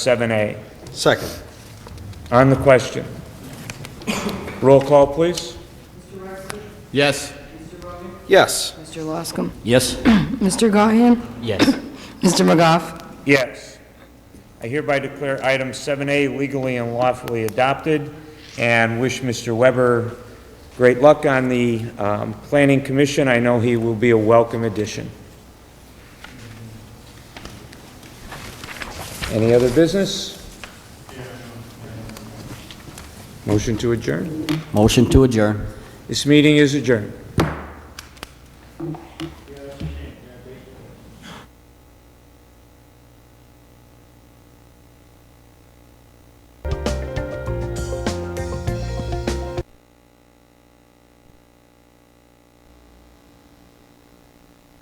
7A. Second. On the question. Roll call, please. Yes. Yes. Mr. Loscom. Yes. Mr. Gahan. Yes. Mr. McGough. Yes. I hereby declare item 7A legally and lawfully adopted, and wish Mr. Weber great luck on the um, Planning Commission. I know he will be a welcome addition. Any other business? Motion to adjourn. Motion to adjourn. This meeting is adjourned.